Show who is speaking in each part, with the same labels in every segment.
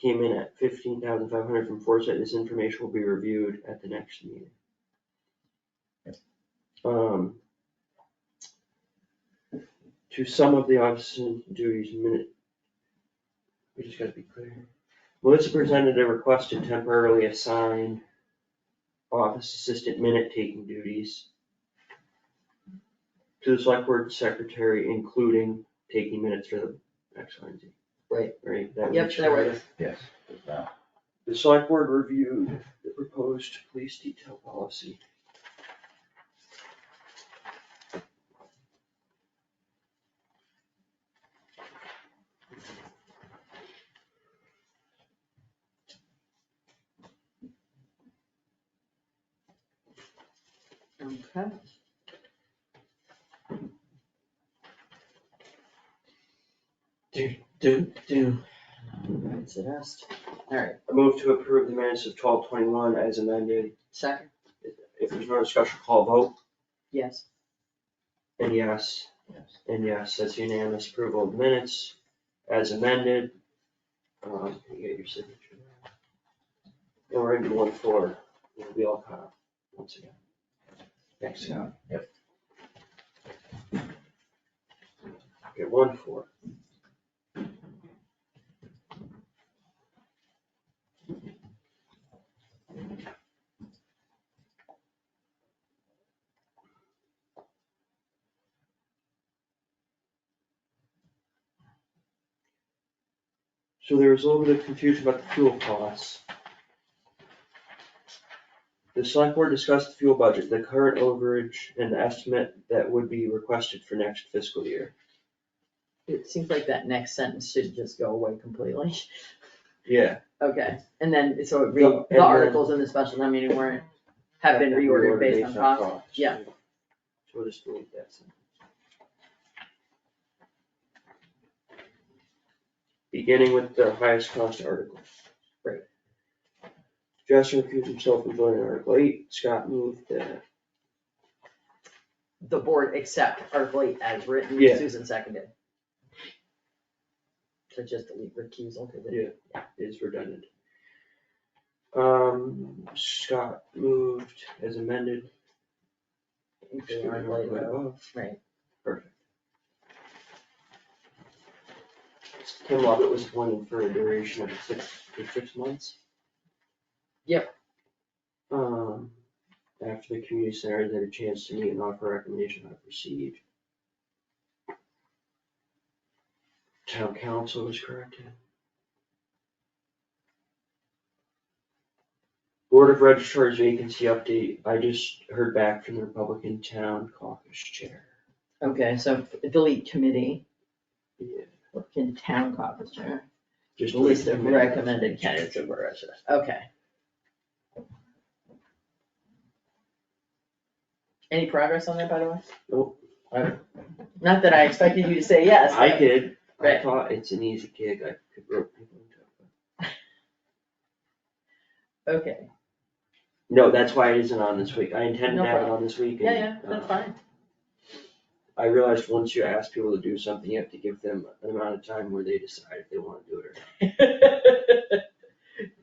Speaker 1: came in at fifteen thousand five hundred from Foresight, this information will be reviewed at the next meeting. Um. To some of the office and duties minute. We just gotta be clear. Melissa presented a request to temporarily assign office assistant minute taking duties to the select board secretary, including taking minutes for the X, Y, and Z.
Speaker 2: Right.
Speaker 1: Right, that
Speaker 2: Yep,
Speaker 1: was.
Speaker 2: that works.
Speaker 3: Yes, there's that.
Speaker 1: The select board reviewed the proposed police detail policy.
Speaker 2: Okay.
Speaker 1: Do, do.
Speaker 2: It's a dust. Alright,
Speaker 1: I move to approve the minutes of twelve twenty-one as amended.
Speaker 2: second,
Speaker 1: If there's no discussion, call a vote.
Speaker 2: yes.
Speaker 1: And yes,
Speaker 3: Yes.
Speaker 1: and yes, that's unanimous approval of minutes as amended. Um, you get your signature. And we're into one four, we'll be all caught up once again. Thanks, Scott.
Speaker 3: Yep.
Speaker 1: Okay, one four. So there was a little bit of confusion about the fuel costs. The select board discussed the fuel budget, the current overage and the estimate that would be requested for next fiscal year.
Speaker 2: It seems like that next sentence should just go away completely.
Speaker 1: Yeah.
Speaker 2: Okay, and then, so it
Speaker 1: No,
Speaker 2: re,
Speaker 1: and then-
Speaker 2: the articles in the special town meeting weren't, have been reordered based on cost. yeah.
Speaker 1: So we'll just delete that. sentence. Beginning with the highest cost article.
Speaker 2: Right.
Speaker 1: Justin recused himself from joining Article eight, Scott moved that,
Speaker 2: The board accept Article eight as written,
Speaker 1: Yeah.
Speaker 2: Susan seconded. So just delete recusal, cause it,
Speaker 1: Yeah. is redundant. Um, Scott moved as amended.
Speaker 2: including
Speaker 1: Excuse me,
Speaker 2: Article eight,
Speaker 1: right
Speaker 2: though.
Speaker 1: above.
Speaker 2: Oh, right,
Speaker 1: Perfect. Tim Lovett was appointed for a duration of six, for six months.
Speaker 2: Yep.
Speaker 1: Um, after the community center had a chance to meet and offer recommendation how to proceed. Town council was corrected. Board of Registrars vacancy update, I just heard back from the Republican Town Caucus Chair.
Speaker 2: okay, so delete committee,
Speaker 1: Yeah,
Speaker 2: look in town caucus chair.
Speaker 1: Just
Speaker 2: List of recommended candidates of our residents, okay. Any progress on that, by the way?
Speaker 1: Nope.
Speaker 2: Not that I expected you to say yes.
Speaker 1: I did, I
Speaker 2: Right.
Speaker 1: thought it's an easy gig, I could rope people into it. but-
Speaker 2: Okay,
Speaker 1: No, that's why it isn't on this week, I intended
Speaker 2: No
Speaker 1: to have it on this week.
Speaker 2: yeah,
Speaker 1: and,
Speaker 2: yeah, that's
Speaker 1: uh,
Speaker 2: fine,
Speaker 1: I realized once you ask people to do something, you have to give them an amount of time where they decide if they wanna do it or not.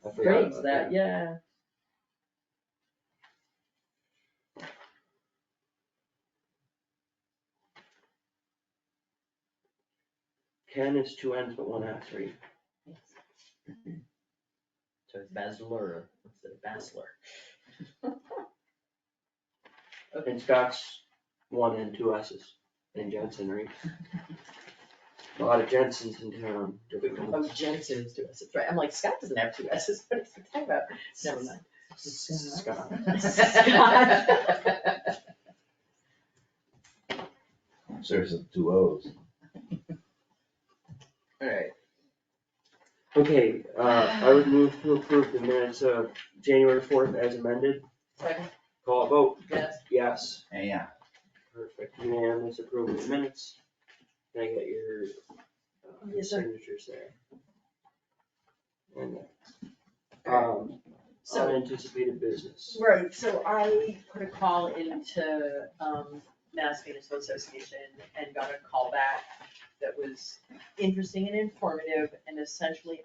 Speaker 1: I forgot
Speaker 2: Brings
Speaker 1: about
Speaker 2: that, yeah.
Speaker 1: Ken is two ends but one half three.
Speaker 2: So it's Basler instead of Basler.
Speaker 1: And Scott's one and two S's, and Jensen, right? A lot of Jensens in town, different ones.
Speaker 2: Oh, Jensen is two S's, right, I'm like, Scott doesn't have two S's, what is he talking about? Never mind.
Speaker 1: Scott.
Speaker 2: Scott.
Speaker 3: Serves as two O's.
Speaker 2: Alright,
Speaker 1: Okay, uh, I would move to approve the minutes of January fourth as amended.
Speaker 2: second,
Speaker 1: Call a vote,
Speaker 2: yes,
Speaker 1: yes.
Speaker 3: And yeah,
Speaker 1: Perfect, unanimous approval of minutes. Can I get your uh,
Speaker 2: Yes, sir.
Speaker 1: signatures there? And, um,
Speaker 4: So,
Speaker 1: unanticipated business.
Speaker 4: right, so I put a call into, um, Mass Municipal Association and got a call back that was interesting and informative and essentially